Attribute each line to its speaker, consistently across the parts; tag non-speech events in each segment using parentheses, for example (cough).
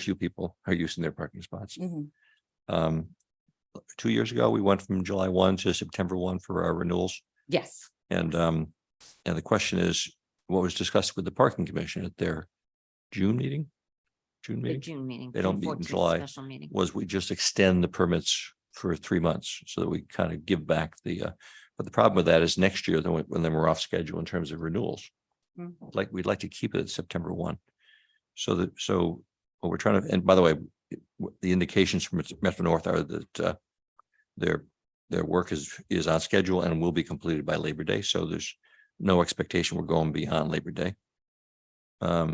Speaker 1: few people are using their parking spots.
Speaker 2: Mm-hmm.
Speaker 3: Mhm.
Speaker 1: Um, two years ago, we went from July one to September one for our renewals.
Speaker 3: Yes,
Speaker 1: And um, and the question is, what was discussed with the parking commission at their June meeting? June
Speaker 3: the
Speaker 1: meeting
Speaker 3: June meeting.
Speaker 1: They don't
Speaker 3: June
Speaker 1: meet in
Speaker 3: 14th
Speaker 1: July.
Speaker 3: Special meeting.
Speaker 1: was we just extend the permits for three months so that we kind of give back the uh, but the problem with that is next year, then we- when then we're off schedule in terms of renewals.
Speaker 3: Mhm.
Speaker 1: like, we'd like to keep it at September one. So that, so what we're trying to, and by the way, it- w- the indications from Metro North are that uh, their, their work is, is on schedule and will be completed by Labor Day. So there's no expectation we're going beyond Labor Day. Um,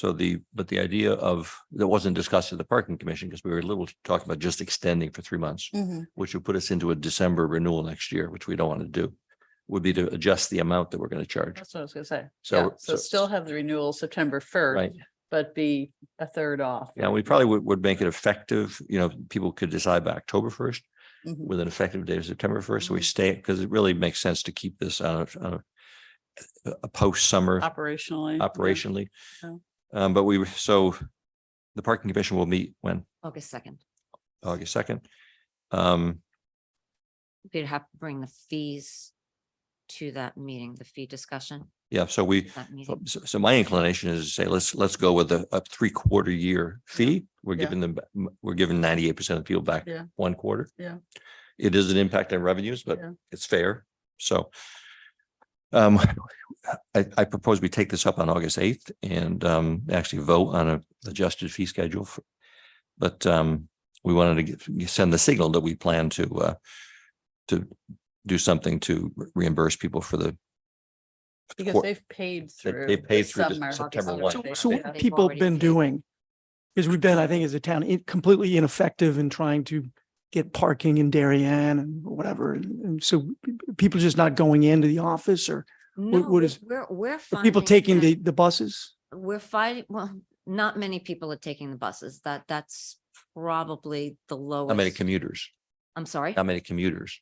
Speaker 1: So the, but the idea of, that wasn't discussed at the parking commission because we were a little talking about just extending for three months
Speaker 2: Mm-hmm.
Speaker 3: Mhm.
Speaker 1: which would put us into a December renewal next year, which we don't want to do, would be to adjust the amount that we're going to charge.
Speaker 4: That's what I was gonna say.
Speaker 1: So-
Speaker 4: Yeah,
Speaker 1: so-
Speaker 4: So still have the renewal September first,
Speaker 1: Right.
Speaker 4: but be a third off.
Speaker 1: Yeah, we probably would, would make it effective, you know, people could decide by October first
Speaker 3: Mhm.
Speaker 2: Mm-hmm.
Speaker 1: with an effective date of September first. So we
Speaker 4: Mm-hmm.
Speaker 3: Mhm.
Speaker 1: stay, because it really makes sense to keep this on a, on a, a post-summer
Speaker 4: Operationally. yeah.
Speaker 1: operationally.
Speaker 4: Yeah.
Speaker 1: Um, but we, were- so the parking commission will meet when,
Speaker 3: August second.
Speaker 1: August second. Um,
Speaker 3: We'd have to bring the fees to that meeting, the fee discussion,
Speaker 1: yeah, so we,
Speaker 3: that
Speaker 1: So,
Speaker 3: meeting.
Speaker 1: so so my inclination is to say, let's, let's go with a, a three quarter year fee. We're
Speaker 4: Yeah.
Speaker 1: giving them, ba- m- we're giving ninety eight percent of people back
Speaker 4: Yeah.
Speaker 1: one quarter.
Speaker 4: Yeah.
Speaker 1: It is an impact on revenues, but
Speaker 4: Yeah.
Speaker 1: it's fair. So um, I, I propose we take this up on August eighth and um, actually vote on a adjusted fee schedule. for- But um, we wanted to get- send the signal that we plan to uh, to do something to reimburse people for the
Speaker 4: Because
Speaker 1: quar-
Speaker 4: they've paid
Speaker 1: They-
Speaker 4: through.
Speaker 1: they
Speaker 4: the
Speaker 1: paid through to
Speaker 4: summer.
Speaker 1: September
Speaker 4: August
Speaker 1: one.
Speaker 4: summer they-
Speaker 2: So, so
Speaker 4: they
Speaker 2: what
Speaker 4: paid.
Speaker 2: have people
Speaker 3: already
Speaker 2: have been
Speaker 3: paid.
Speaker 2: doing is we've been, I think, as a town, in- completely ineffective in trying to get parking in Darien and whatever. And and so p- p- people just not going into the office or
Speaker 3: No,
Speaker 2: what
Speaker 3: we-
Speaker 2: is-
Speaker 3: We're, we're.
Speaker 2: or people
Speaker 3: finding
Speaker 2: taking
Speaker 3: that-
Speaker 2: the, the buses.
Speaker 3: We're fighting, well, not many people are taking the buses. That, that's probably the lowest.
Speaker 1: How many commuters?
Speaker 3: I'm sorry,
Speaker 1: How many commuters?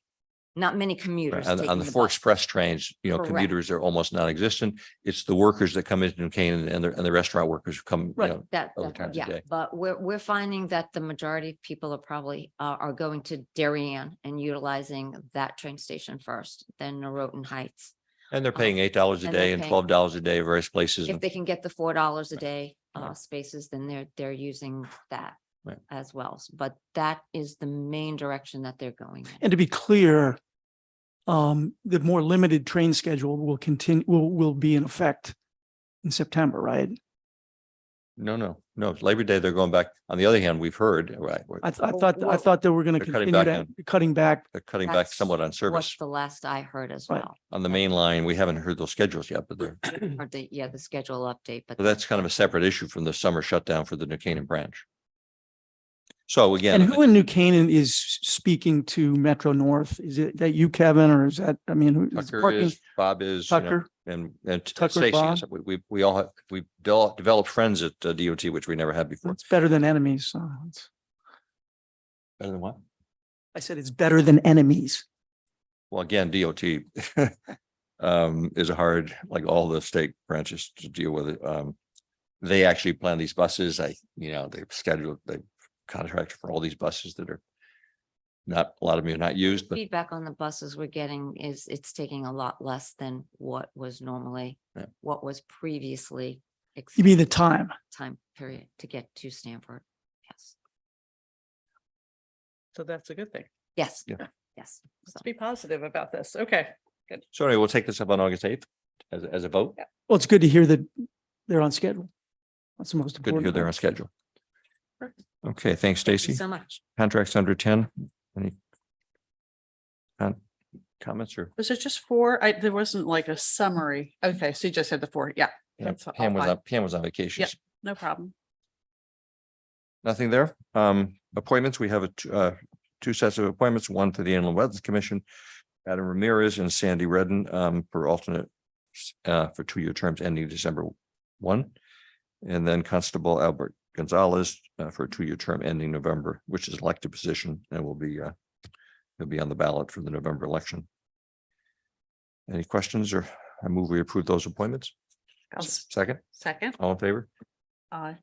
Speaker 3: not many
Speaker 1: Right,
Speaker 3: commuters.
Speaker 1: On, on
Speaker 3: taking
Speaker 1: the
Speaker 3: the
Speaker 1: four
Speaker 3: bus.
Speaker 1: express trains, you know,
Speaker 3: Correct.
Speaker 1: commuters are almost non-existent. It's the workers that come into New Canaan and the, and the restaurant workers who come, you
Speaker 2: Right.
Speaker 1: know,
Speaker 3: That,
Speaker 1: other
Speaker 3: that-
Speaker 1: times a
Speaker 3: yeah,
Speaker 1: day.
Speaker 3: but we're, we're finding that the majority of people are probably, uh, are going to Darien and utilizing that train station first, then Norotan Heights.
Speaker 1: and they're paying eight dollars a
Speaker 3: Uh-huh. And they're
Speaker 1: day and
Speaker 3: paying-
Speaker 1: twelve dollars a day at various places.
Speaker 3: If
Speaker 1: and-
Speaker 3: they can get the four dollars a day,
Speaker 1: Right.
Speaker 3: uh, spaces, then they're, they're using that
Speaker 1: Right.
Speaker 3: as well. S- But that is the main direction that they're going. in.
Speaker 2: And to be clear, um, the more limited train schedule will continue, will, will be in effect in September, right?
Speaker 1: No, no, no, it's Labor Day, they're going back. On the other hand, we've heard, right, we're-
Speaker 2: I, th- I
Speaker 3: Well,
Speaker 2: thought, I
Speaker 3: well,
Speaker 2: thought they were going to
Speaker 1: they're cutting
Speaker 2: continue
Speaker 1: back
Speaker 2: to, cutting back.
Speaker 1: they're cutting back
Speaker 3: That's
Speaker 1: somewhat on
Speaker 3: What's
Speaker 1: service.
Speaker 3: the last I heard as
Speaker 2: Right.
Speaker 3: well,
Speaker 1: On the main line, we haven't heard those schedules yet, but they're,
Speaker 3: or the, yeah, the schedule update, but.
Speaker 1: but that's kind of a separate issue from the summer shutdown for the New Canaan branch. So again.
Speaker 2: And
Speaker 1: I-
Speaker 2: who in New Canaan is speaking to Metro North? Is it that you, Kevin, or is that, I mean, who is
Speaker 1: Tucker
Speaker 2: parking?
Speaker 1: is, Bob is. you know,
Speaker 2: Tucker?
Speaker 1: And, and t-
Speaker 2: Tucker
Speaker 1: Stacy,
Speaker 2: Bond?
Speaker 1: is- we, we, we all have, we've del- developed friends at uh, DOT, which we never had before.
Speaker 2: It's better than enemies. so it's-
Speaker 1: Better than what?
Speaker 2: I said it's better than enemies.
Speaker 1: Well, again, DOT (laughs) um, is a hard, like all the state branches to deal with. it. Um, they actually plan these buses. I, you know, they've scheduled, they contract for all these buses that are not, a lot of them are not used, but
Speaker 3: feedback on the buses we're getting is it's taking a lot less than what was normally,
Speaker 1: Yeah.
Speaker 3: what was previously.
Speaker 2: You mean the
Speaker 3: expected
Speaker 2: time?
Speaker 3: Time period to get to Stanford. Yes,
Speaker 4: So that's a good thing.
Speaker 3: yes,
Speaker 1: Yeah.
Speaker 3: yes. So-
Speaker 4: Let's be positive about this. Okay.
Speaker 1: so anyway, we'll take this up on August eighth as, as a vote.
Speaker 2: Well, it's good to hear that they're on schedule. That's the most
Speaker 1: Good to
Speaker 2: important.
Speaker 1: hear they're on
Speaker 2: part.
Speaker 1: schedule. Okay, thanks,
Speaker 3: Thank you
Speaker 1: Stacy.
Speaker 3: So much.
Speaker 1: Contracts under ten, any? con- Comments or?
Speaker 4: Was it just four? I, there wasn't like a summary. Okay, so you just had the four. Yeah,
Speaker 1: Yeah,
Speaker 4: That's all
Speaker 1: Pam was
Speaker 4: fine.
Speaker 1: on, Pam was on vacation.
Speaker 4: Yep. no problem.
Speaker 1: Nothing there. Um, appointments, we have a, t- uh, two sets of appointments, one to the Inland Wetlands Commission. Adam Ramirez and Sandy Redden, um, for alternate, uh, for two-year terms ending December one. And then Constable Albert Gonzalez, uh, for a two-year term ending November, which is elected position and will be, uh, will be on the ballot for the November election. Any questions or I move we approve those appointments?
Speaker 4: I'll s-
Speaker 1: Second,
Speaker 4: Second,
Speaker 1: all in favor?
Speaker 4: Aye.